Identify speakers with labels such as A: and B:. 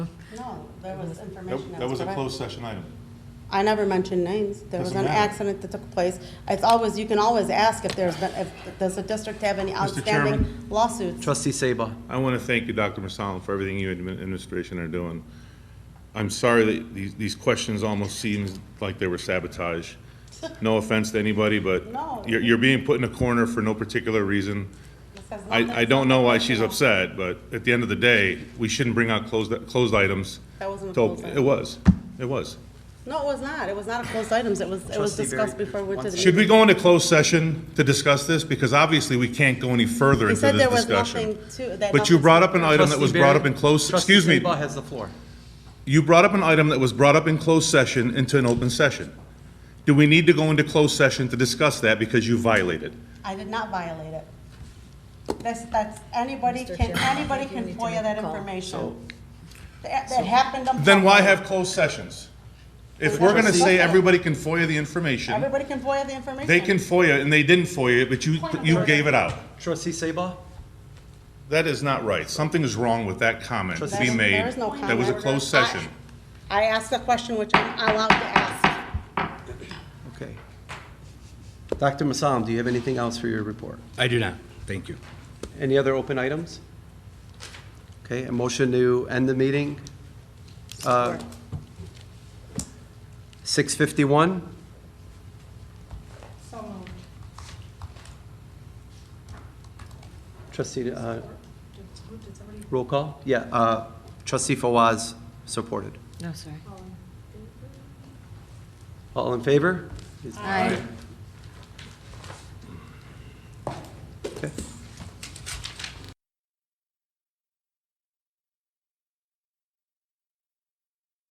A: No, there was
B: Nope,
A: information.
B: That was a
A: provided.
B: closed session item.
A: I never mentioned names. There was
B: Doesn't
A: an
B: matter.
A: accident that took place. It's always, you can always ask if there's been, if, does the district have any outstanding
B: Chairman.
A: lawsuits?
C: Trustee Sabah.
B: I want to thank you, Dr. Masalim, for everything you and admin- administration are doing. I'm sorry that these, these questions almost seemed like they were sabotage. No offense to anybody, but
A: No.
B: you're, you're being put in a corner for no particular reason.
A: This has nothing
B: I, I
A: to
B: don't
A: do
B: know
A: with
B: why
A: anything
B: she's
A: else.
B: upset, but at the end of the day, we shouldn't bring out closed, closed items.
A: That wasn't a
B: till-
A: closed item.
B: It was, it was.
A: No, it was not. It was not a closed items. It was, it was
C: Trustee Barry,
A: discussed before we went to the.
C: once-
B: Should we go into closed session to discuss this? Because obviously, we can't go any further
A: You
B: into
A: said there
B: this
A: was
B: discussion.
A: nothing to, that.
B: But you
A: nothing's-
B: brought up an item that
C: Trustee
B: was brought
C: Barry.
B: up in closed,
C: Trustee
B: excuse me,
C: Sabah has the floor.
B: you brought up an item that was brought up in closed session into an open session. Do we need to go into closed session to discuss that because you violated?
A: I did not violate it. That's, that's, anybody can, anybody can FOIA that information. That that happened. on
B: Then why
A: purpose.
B: have closed sessions? If we're gonna say everybody can FOIA the information,
A: Everybody can FOIA the information.
B: they can FOIA and they didn't FOIA it, but you, you gave it out.
C: Trustee Sabah.
B: That is not right. Something is wrong with that comment to be
A: There's-
B: made.
A: there is no
B: That was a
A: comment.
B: closed session.
A: I asked a question which I'm allowed to ask.
C: Okay. Dr. Masalim, do you have anything else for your report?
D: I do not. Thank you.
C: Any other open items? Okay, a motion to end the meeting, Uh, 6:51?
A: So moved.
C: Trustee, uh, roll call? Yeah, uh, trustee Fawaz, supported.
E: No, sorry.
C: All in favor?